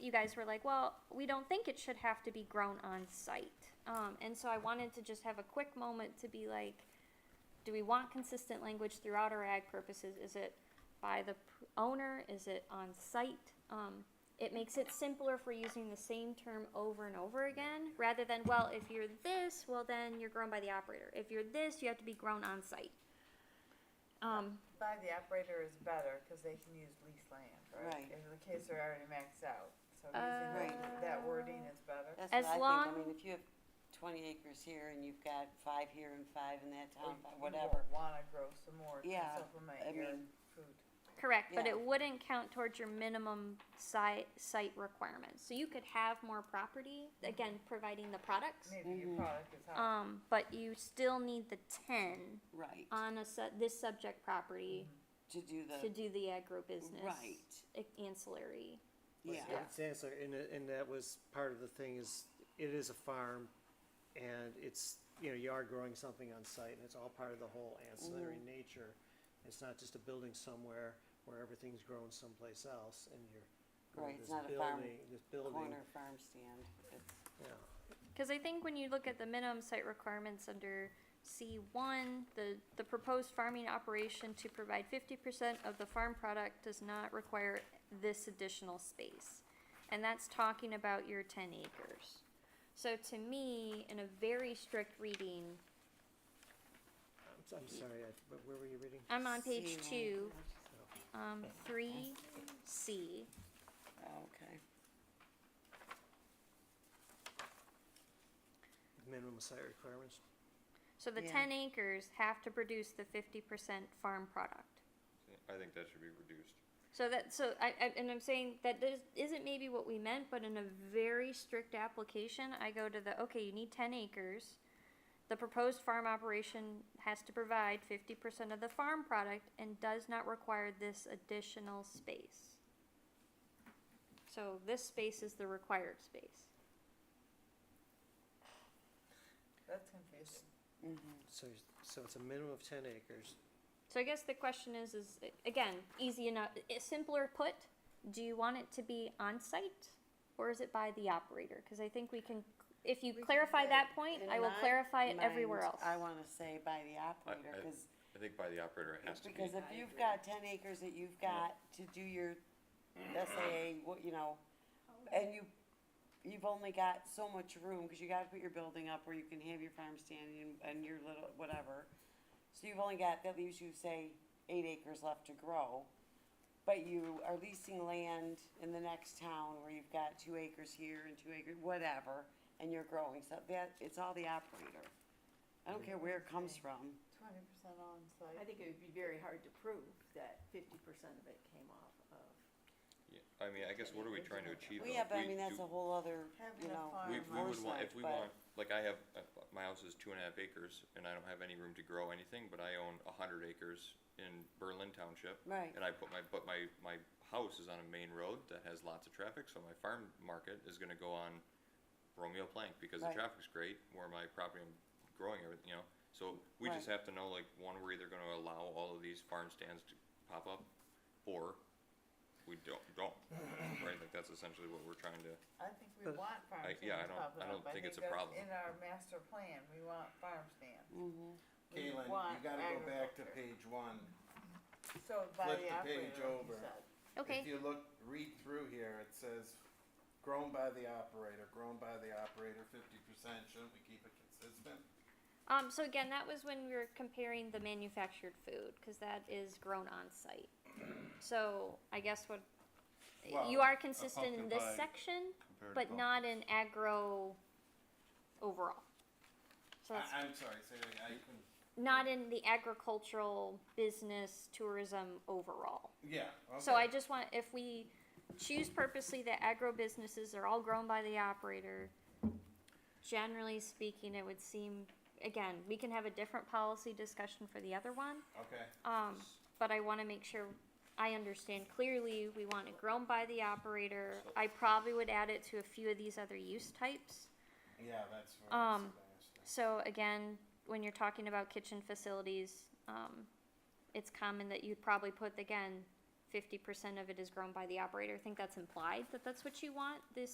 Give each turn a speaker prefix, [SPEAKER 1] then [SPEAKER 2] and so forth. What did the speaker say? [SPEAKER 1] you guys were like, well, we don't think it should have to be grown on site. Um, and so I wanted to just have a quick moment to be like, do we want consistent language throughout our ag purposes? Is it by the p- owner? Is it on site? Um, it makes it simpler for using the same term over and over again, rather than, well, if you're this, well, then you're grown by the operator. If you're this, you have to be grown on site. Um,
[SPEAKER 2] By the operator is better, cause they can use leased land, right?
[SPEAKER 3] Right.
[SPEAKER 2] In the case they're already maxed out, so using
[SPEAKER 3] Uh,
[SPEAKER 2] that- that wording is better.
[SPEAKER 3] That's
[SPEAKER 1] As
[SPEAKER 3] what I think.
[SPEAKER 1] long-
[SPEAKER 3] I mean, if you have twenty acres here and you've got five here and five in that
[SPEAKER 2] Or
[SPEAKER 3] town,
[SPEAKER 2] you
[SPEAKER 3] fi-
[SPEAKER 2] won't
[SPEAKER 3] whatever.
[SPEAKER 2] Wanna grow some more to
[SPEAKER 3] Yeah, I
[SPEAKER 2] supplement your
[SPEAKER 3] mean-
[SPEAKER 2] food.
[SPEAKER 1] Correct, but
[SPEAKER 3] Yeah.
[SPEAKER 1] it wouldn't count towards your minimum site, site requirements. So you could have more property, again, providing the products.
[SPEAKER 2] Maybe
[SPEAKER 3] mm-hmm.
[SPEAKER 2] your product is hot.
[SPEAKER 1] Um, but you still need the ten
[SPEAKER 3] Right,
[SPEAKER 1] on a su- this subject proproperty
[SPEAKER 3] to do
[SPEAKER 1] to
[SPEAKER 3] the,
[SPEAKER 1] do the agribusiness.
[SPEAKER 3] Mm-hmm. Right.
[SPEAKER 1] a- Ancillary.
[SPEAKER 3] yeah,
[SPEAKER 4] Yeah, It's ancillary, and, it- and that was part of the thing is, it is a farm, and it's, you know, you are growing something on site, and it's all part of the whole ancillary
[SPEAKER 3] Mm-hmm.
[SPEAKER 4] nature. It's not just a building somewhere where everything's grown someplace else, and you're, growing
[SPEAKER 3] Right, it's
[SPEAKER 4] this
[SPEAKER 3] not a farm
[SPEAKER 4] building, this building,
[SPEAKER 3] corner farm stand, it's,
[SPEAKER 4] yeah.
[SPEAKER 1] Because I think when you look at the minimum site requirements under C1, the, the proposed farming operation to provide 50% of the farm product does not require this additional space. And that's talking about your 10 acres. So to me, in a very strict reading,
[SPEAKER 4] I'm, s- I'm sorry, I, but where were you reading? Oh,
[SPEAKER 1] I'm on page
[SPEAKER 3] C1.
[SPEAKER 1] two, um, 3C.
[SPEAKER 3] Oh, okay,
[SPEAKER 4] Minimum site requirements?
[SPEAKER 1] So the
[SPEAKER 3] Yeah.
[SPEAKER 1] 10 acres have to produce the 50% farm product.
[SPEAKER 5] I think that should be reduced.
[SPEAKER 1] So that, so I, I, and I'm saying that this isn't maybe what we meant, but in a very strict application, I go to the, okay, you need ten acres. The proposed farm operation has to provide fifty percent of the farm product and does not require this additional space. So this space is the required space.
[SPEAKER 2] That's confusing.
[SPEAKER 3] mhm,
[SPEAKER 4] So, so it's a minimum of ten acres,
[SPEAKER 1] So I guess the question is, is, uh, again, easy enough, i- simpler put, do you want it to be on-site? Or is it by the operator? Cause I think we can, if you
[SPEAKER 2] We can
[SPEAKER 1] clarify
[SPEAKER 2] say
[SPEAKER 1] that point,
[SPEAKER 3] In
[SPEAKER 1] I will
[SPEAKER 3] my
[SPEAKER 1] clarify it everywhere
[SPEAKER 3] mind,
[SPEAKER 1] else.
[SPEAKER 3] I wanna say by the operator,
[SPEAKER 5] I-
[SPEAKER 3] cause,
[SPEAKER 5] I think by the operator it has to be.
[SPEAKER 3] because if you've got ten acres that you've got to do your SAA, what, you know, and you, you've only got so much room, cause you gotta put your building up where you can have your farm stand and, and your little, whatever. So you've only got, that leaves you, say, eight acres left to grow, but you are leasing land in the next town where you've got two acres here and two acres, whatever, and you're growing, so that, it's all the operator. I don't care where it comes from,
[SPEAKER 2] Twenty percent on
[SPEAKER 6] I
[SPEAKER 2] site.
[SPEAKER 6] think it would be very hard to prove that fifty percent of it came off of,
[SPEAKER 5] Yeah, I mean, I guess what are we trying to achieve?
[SPEAKER 3] well,
[SPEAKER 5] though?
[SPEAKER 3] yeah, but I
[SPEAKER 5] We
[SPEAKER 3] mean, that's
[SPEAKER 5] do-
[SPEAKER 3] a whole other,
[SPEAKER 2] Having a
[SPEAKER 3] you know,
[SPEAKER 2] farm
[SPEAKER 5] We, we would want,
[SPEAKER 3] oversight,
[SPEAKER 5] if we
[SPEAKER 3] but-
[SPEAKER 5] want, like I have, uh, my house is two and a half acres and I don't have any room to grow anything, but I own a hundred acres in Berlin Township.
[SPEAKER 3] Right.
[SPEAKER 5] And I put my, but my, my house is on a main road that has lots of traffic, so my farm market is gonna go on Romeo Plank because the
[SPEAKER 3] Right.
[SPEAKER 5] traffic's great where my property I'm growing everything, you know? So we just
[SPEAKER 3] Right.
[SPEAKER 5] have to know like, one, we're either gonna allow all of these farm stands to pop up or we don't, don't. Right, like that's essentially what we're trying to.
[SPEAKER 2] I think we
[SPEAKER 4] But-
[SPEAKER 2] want farm
[SPEAKER 5] I-
[SPEAKER 2] stands
[SPEAKER 5] yeah, I don't-
[SPEAKER 2] popping
[SPEAKER 5] I don't
[SPEAKER 2] up.
[SPEAKER 5] think it's a
[SPEAKER 2] that's
[SPEAKER 5] problem.
[SPEAKER 2] In our master plan, we want farm stands.
[SPEAKER 3] Mm-hmm.
[SPEAKER 2] We
[SPEAKER 7] Caitlin, you
[SPEAKER 2] want
[SPEAKER 7] gotta go back to
[SPEAKER 2] agriculture.
[SPEAKER 7] page one.
[SPEAKER 2] So by
[SPEAKER 7] flip
[SPEAKER 2] the
[SPEAKER 7] the
[SPEAKER 2] operator,
[SPEAKER 7] page
[SPEAKER 2] like you
[SPEAKER 7] over.
[SPEAKER 2] said.
[SPEAKER 1] Okay,
[SPEAKER 7] If you look, read through here, it says, grown by the operator, grown by the operator, fifty percent, shouldn't we keep it consistent?
[SPEAKER 1] um, so again, that was when we were comparing the manufactured food, cause that is grown on-site. So I guess what, you
[SPEAKER 7] Well,
[SPEAKER 1] are
[SPEAKER 7] a
[SPEAKER 1] consistent in
[SPEAKER 7] pumpkin
[SPEAKER 1] this
[SPEAKER 7] pie
[SPEAKER 1] section,
[SPEAKER 7] compared to
[SPEAKER 1] but
[SPEAKER 7] pumpkin.
[SPEAKER 1] not in agro overall. So that's
[SPEAKER 7] I, I'm sorry, say, that again. I can,
[SPEAKER 1] not in the agricultural business tourism overall.
[SPEAKER 7] yeah, okay.
[SPEAKER 1] So I just want, if we choose purposely that agro businesses are all grown by the operator, generally speaking, it would seem, again, we can have a different policy discussion for the other one.
[SPEAKER 7] Okay,
[SPEAKER 1] Um, but I wanna make sure I understand clearly, we want it grown by the operator. I probably would add it to a few of these other use types.
[SPEAKER 7] yeah, that's what I was
[SPEAKER 1] Um,
[SPEAKER 7] asking.
[SPEAKER 1] So again, when you're talking about kitchen facilities, um, it's common that you'd probably put, again, fifty percent of it is grown by the operator. I think that's implied that that's what you want, this